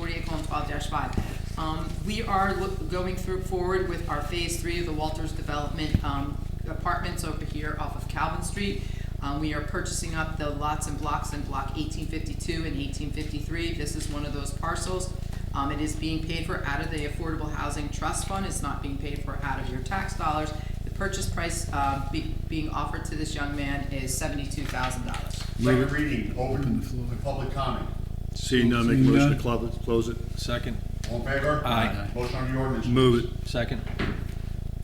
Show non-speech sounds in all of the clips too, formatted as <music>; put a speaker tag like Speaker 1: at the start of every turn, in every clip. Speaker 1: one twelve five. Um, we are loo- going through forward with our phase three of the Walters Development, um, apartments over here off of Calvin Street. Um, we are purchasing up the lots and blocks in block eighteen fifty-two and eighteen fifty-three. This is one of those parcels. Um, it is being paid for out of the Affordable Housing Trust Fund. It's not being paid for out of your tax dollars. The purchase price, uh, be, being offered to this young man is seventy-two thousand dollars.
Speaker 2: Second reading, open the public comment.
Speaker 3: Seeing none, make a
Speaker 4: Seeing
Speaker 3: motion to
Speaker 4: none.
Speaker 3: clo- close it.
Speaker 4: Second.
Speaker 2: All in favor?
Speaker 4: Aye.
Speaker 2: Motion on the ordinance.
Speaker 3: Move it.
Speaker 4: Second.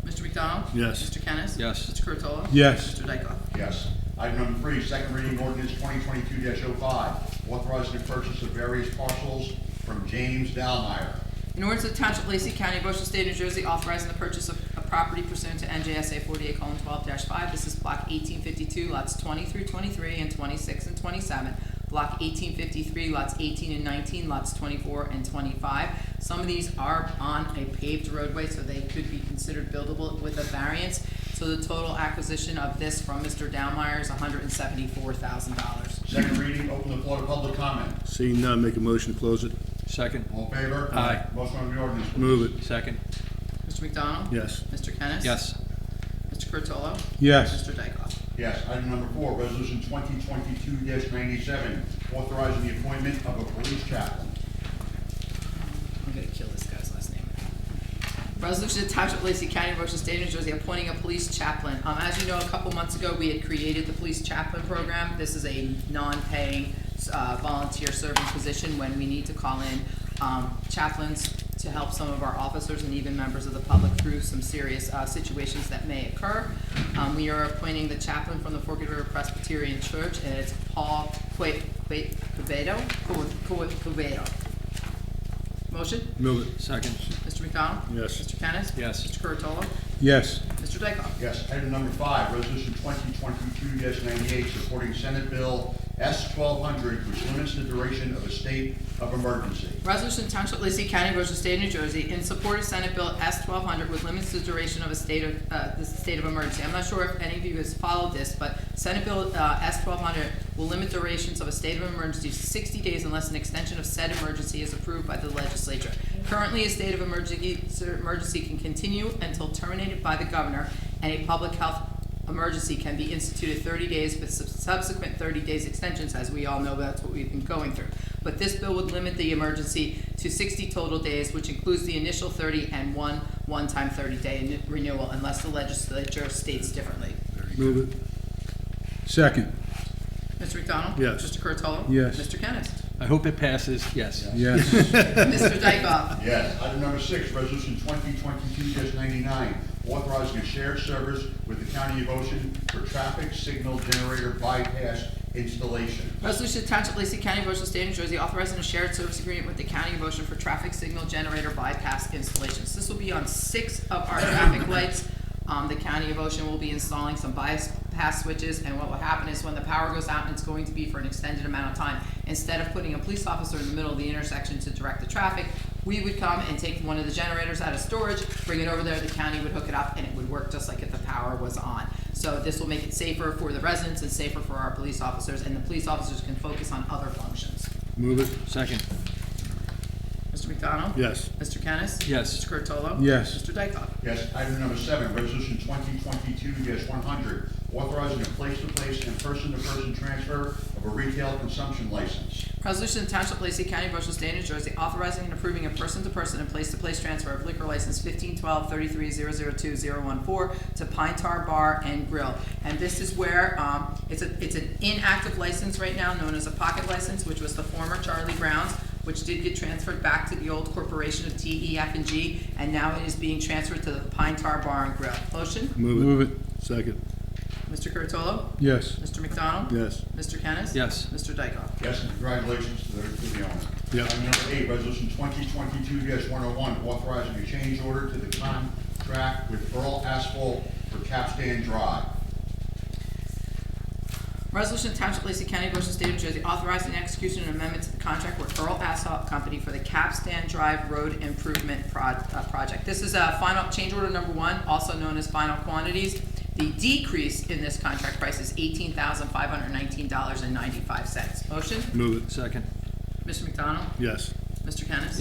Speaker 1: Mr. McDonald?
Speaker 3: Yes.
Speaker 1: Mr. Kennis?
Speaker 4: Yes.
Speaker 1: Mr. Curatolo?
Speaker 3: Yes.
Speaker 1: Mr. Dykoff?
Speaker 2: Yes. Item number three, second reading ordinance twenty twenty-two 5 authorizing the purchase of various parcels from James Dalmeyer.
Speaker 1: In order to the Township of Lacey County, Ocean State, New Jersey, authorizing the purchase of a property pursuant to NJSA forty-eight twelve five. This is block eighteen fifty-two, lots twenty through twenty-three and twenty-six and twenty-seven. Block eighteen fifty-three, lots eighteen and nineteen, lots twenty-four and twenty-five. Some of these are on a paved roadway, so they could be considered buildable with a variance. So the total acquisition of this from Mr. Downmeyer is hundred and seventy-four thousand dollars.
Speaker 2: Second reading, open the floor to public comment.
Speaker 3: Seeing none, make a motion to close it.
Speaker 4: Second.
Speaker 2: All in favor?
Speaker 4: Aye.
Speaker 2: Motion on the ordinance. please.
Speaker 3: Move it.
Speaker 4: Second.
Speaker 1: Mr. McDonald?
Speaker 3: Yes.
Speaker 1: Mr. Kennis?
Speaker 4: Yes.
Speaker 1: Mr. Curatolo?
Speaker 3: Yes.
Speaker 1: Mr. Dykoff?
Speaker 2: Yes. Item number four, resolution twenty twenty-two ninety-seven, authorizing the appointment of a police chaplain.
Speaker 1: I'm gonna kill this guy's last name. Resolution to Township of Lacey County, Ocean State, New Jersey, appointing a police chaplain. Um, as you know, a couple months ago, we had created the police chaplain program. This is a non-paying, uh, volunteer serving position when we need to call in, um, chaplains to help some of our officers and even members of the public through some serious, uh, situations that may occur. Um, we are appointing the chaplain from the Forked River Presbyterian Church, and it's Paul Que- Que- Quevedo, Que- Que- Quevedo. Motion?
Speaker 3: Move it.
Speaker 4: Second.
Speaker 1: Mr. McDonald?
Speaker 3: Yes.
Speaker 1: Mr. Kennis?
Speaker 4: Yes.
Speaker 1: Mr. Curatolo?
Speaker 3: Yes.
Speaker 1: Mr. Dykoff?
Speaker 2: Yes. Item number five, resolution twenty twenty-two ninety-eight, supporting Senate Bill S twelve hundred, which limits the duration of a state of emergency.
Speaker 1: Resolution Township of Lacey County, Ocean State, New Jersey, in support of Senate Bill S twelve hundred with limits to duration of a state of, uh, the state of emergency. I'm not sure if any of you has followed this, but Senate Bill, uh, S twelve hundred will limit durations of a state of emergency to sixty days unless an extension of said emergency is approved by the legislature. Currently, a state of emergency, emergency can continue until terminated by the governor, and a public health emergency can be instituted 30 days with sub- subsequent 30 days extensions, as we all know, that's what we've been going through. But this bill would limit the emergency to 60 total days, which includes the initial 30 and one one-time 30-day renewal unless the legislature states differently.
Speaker 3: Move it. Second.
Speaker 1: Mr. McDonald?
Speaker 3: Yes.
Speaker 1: Mr. Curatolo?
Speaker 3: Yes.
Speaker 1: Mr. Kennis? <laughs>
Speaker 4: I hope it passes. Yes.
Speaker 3: <laughs> Yes.
Speaker 1: Mr. Dykoff?
Speaker 2: Yes. Item number six, resolution twenty twenty-two ninety-nine, authorizing a shared service with the County of Ocean for traffic signal generator bypass installation.
Speaker 1: Resolution to Township of Lacey County, Ocean State, New Jersey, authorizing a shared service agreement with the County of Ocean for traffic signal generator bypass installations. This will be on six of our traffic lights. Um, the County of Ocean will be installing some bypass switches, and what will happen is when the power goes out, and it's going to be for an extended amount of time. Instead of putting a police officer in the middle of the intersection to direct the traffic, we would come and take one of the generators out of storage, bring it over there, the county would hook it up, and it would work just like if the power was on. So this will make it safer for the residents and safer for our police officers, and the police officers can focus on other functions.
Speaker 3: Move it.
Speaker 4: Second.
Speaker 1: Mr. McDonald?
Speaker 3: Yes.
Speaker 1: Mr. Kennis?
Speaker 4: Yes.
Speaker 1: Mr. Curatolo?
Speaker 3: Yes.
Speaker 1: Mr. Dykoff?
Speaker 2: Yes. Item number seven, resolution twenty twenty-two one hundred, authorizing a place-to-place and person-to-person transfer of a retail consumption license.
Speaker 1: Resolution to Township of Lacey County, Ocean State, New Jersey, authorizing and approving a person-to-person and place-to-place transfer of liquor license fifteen twelve thirty-three zero zero two zero one four to Pine Tar Bar and Grill. And this is where, um, it's a, it's an inactive license right now, known as a pocket license, which was the former Charlie Brown's, which did get transferred back to the old corporation of TEF and G, and now it is being transferred to the Pine Tar Bar and Grill. Motion,
Speaker 3: Move it. Move it. Second.
Speaker 1: Mr. Curatolo?
Speaker 3: Yes.
Speaker 1: Mr. McDonald?
Speaker 3: Yes.
Speaker 1: Mr. Kennis?
Speaker 4: Yes.
Speaker 1: Mr. Dykoff?
Speaker 2: Yes, and congratulations to the, to the owner.
Speaker 3: Yeah.
Speaker 2: Item number eight, resolution twenty twenty-two one oh one, authorizing a change order to the contract with Earl Asphalt for Capstan Drive.
Speaker 1: Resolution to Township of Lacey County, Ocean State, New Jersey, authorizing execution and amendment to the contract with Earl Asphalt Company for the Capstan Drive Road Improvement Pro- uh, Project. This is a final, change order number one, also known as final quantities. The decrease in this contract price is eighteen thousand five hundred nineteen dollars and ninety-five cents. Motion,
Speaker 3: Move it.
Speaker 4: Second.
Speaker 1: Mr. McDonald,
Speaker 3: Yes.
Speaker 1: Mr. Kennis?